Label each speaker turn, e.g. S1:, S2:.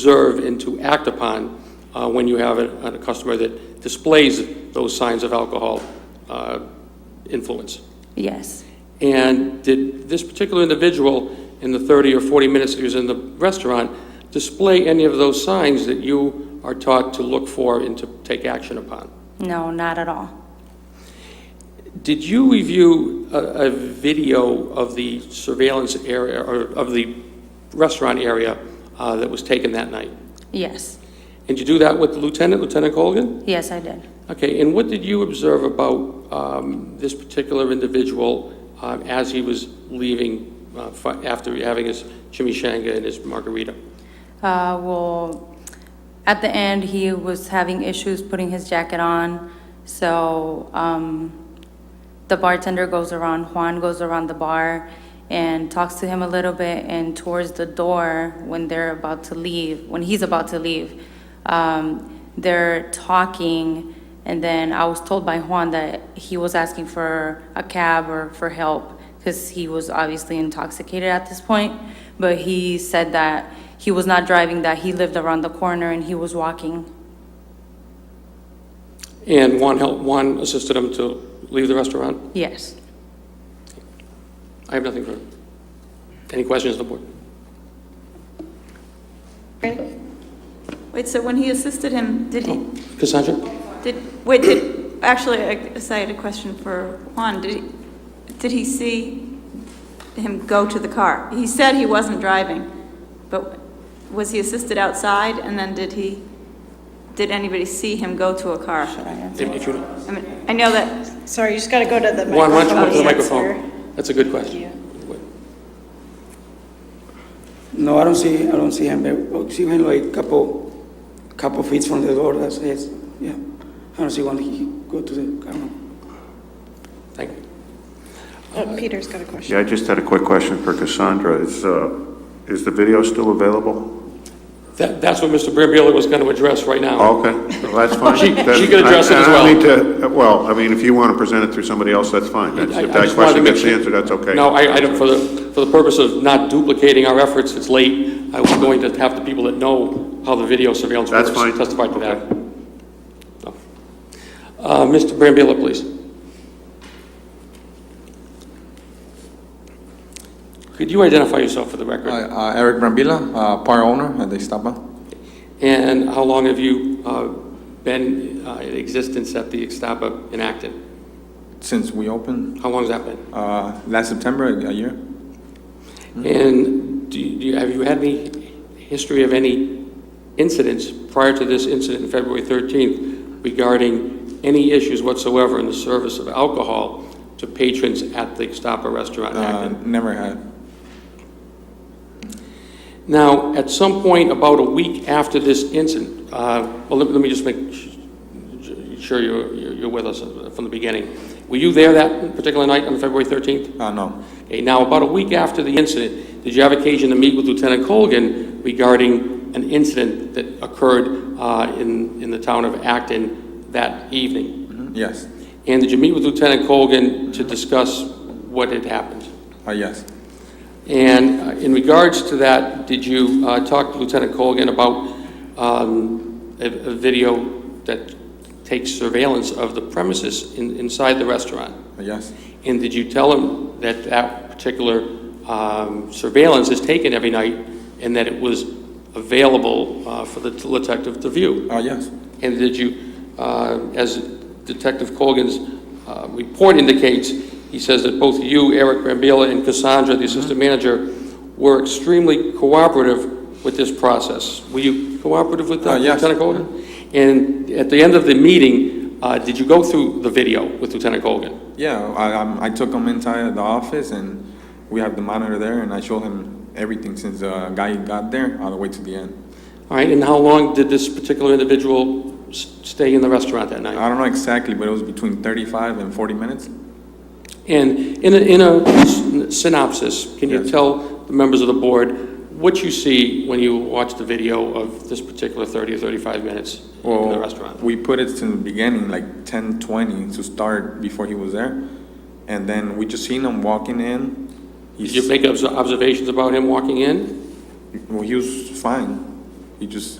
S1: observe and to act upon uh, when you have a a customer that displays those signs of alcohol uh, influence.
S2: Yes,
S1: And did this particular individual, in the 30 or 40 minutes he was in the restaurant, display any of those signs that you are taught to look for and to take action upon?
S2: no, not at all.
S1: Did you review a, a video of the surveillance area, or of the restaurant area uh, that was taken that night?
S2: Yes,
S1: And you do that with Lieutenant, Lieutenant Colgan?
S2: yes, I did.
S1: Okay, and what did you observe about um, this particular individual um, as he was leaving uh, fi- after having his chimichanga and his margarita?
S2: Uh, well, at the end, he was having issues putting his jacket on, so, um, the bartender goes around, Juan goes around the bar and talks to him a little bit, and towards the door, when they're about to leave, when he's about to leave, um, they're talking, and then I was told by Juan that he was asking for a cab or for help, because he was obviously intoxicated at this point, but he said that he was not driving, that he lived around the corner and he was walking.
S1: And Juan helped, Juan assisted him to leave the restaurant?
S2: Yes.
S1: I have nothing further. Any questions, on the board?
S3: Wait, so when he assisted him, did he,
S1: Cassandra?
S3: did, wait, did, actually, I so I had a question for Juan. Did he, did he see him go to the car? He said he wasn't driving, but was he assisted outside? And then did he, did anybody see him go to a car?
S1: If- if you-
S3: I mean, I know that,
S4: Sorry, you just got to go to the microphone.
S1: Juan, why don't you come up to the
S4: Yes, sir.
S1: microphone? That's a good question.
S5: No, I don't see, I don't see him. I see him like couple, couple feet from the door. That's it. Yeah, I don't see when he go to the camera.
S1: Thank you.
S4: Uh, Peter's got a question.
S6: Yeah, I just had a quick question for Cassandra. Is, uh, is the video still available?
S1: That, that's what Mr. Brambilla was going to address right now.
S6: Okay, well, that's fine.
S1: Oh. She-
S6: That-
S1: she could address it
S6: I-
S1: as
S6: I
S1: well.
S6: don't need to, well, I mean, if you want to present it through somebody else, that's fine.
S1: I- I
S6: That's-
S1: just
S6: If that
S1: wanted to
S6: question
S1: make
S6: gets
S1: sure-
S6: answered, that's okay.
S1: No, I, I don't, for the, for the purpose of not duplicating our efforts, it's late. I was going to have the people that know how the video surveillance works
S6: That's fine.
S1: testify to that.
S6: Okay.
S1: No. Uh, Mr. Brambilla, please. Could you identify yourself for the record?
S7: Hi, uh, Eric Brambilla, uh, bar owner at Estapa.
S1: And how long have you uh, been uh, in existence at the Estapa in Acton?
S7: Since we opened
S1: How long's that been?
S7: uh, last September, a a year,
S1: And do you, do you- have you had any history of any incidents prior to this incident on February 13th regarding any issues whatsoever in the service of alcohol to patrons at the Gestapo restaurant in
S7: uh,
S1: Acton?
S7: never had.
S1: Now, at some point about a week after this incident, uh, well, let let me just make sh- sh- sure you're, you're you're with us from the beginning. Were you there that particular night on February 13th?
S7: Uh, no,
S1: Okay, now, about a week after the incident, did you have occasion to meet with Lieutenant Colgan regarding an incident that occurred uh, in, in the town of Acton that evening?
S7: Mhm, yes,
S1: And did you meet with Lieutenant Colgan to discuss what had happened?
S7: uh, yes,
S1: And uh, in regards to that, did you uh, talk to Lieutenant Colgan about um, a a video that takes surveillance of the premises in- inside the restaurant?
S7: uh, yes,
S1: And did you tell him that that particular um, surveillance is taken every night and that it was available uh, for the detective to view?
S7: uh, yes,
S1: And did you, uh, as Detective Colgan's uh, report indicates, he says that both you, Eric Rambilla, and Cassandra, the assistant manager, were extremely cooperative with this process. Were you cooperative with uh,
S7: Uh, yes.
S1: Lieutenant Colgan? And at the end of the meeting, uh, did you go through the video with Lieutenant Colgan?
S7: yeah. I, I'm- I took him inside the office, and we have the monitor there, and I showed him everything since the guy got there all the way to the end.
S1: All right, and how long did this particular individual s- stay in the restaurant that night?
S7: I don't know exactly, but it was between 35 and 40 minutes.
S1: And in a, in a s- synopsis, can you
S7: Yes.
S1: tell the members of the board what you see when you watch the video of this particular 30 or 35 minutes in the
S7: Well,
S1: restaurant?
S7: We put it in the beginning, like 10, 20 to start before he was there. And then we just seen him walking in.
S1: Did
S7: He's,
S1: you make obs- observations about him walking in?
S7: well, he was fine. He just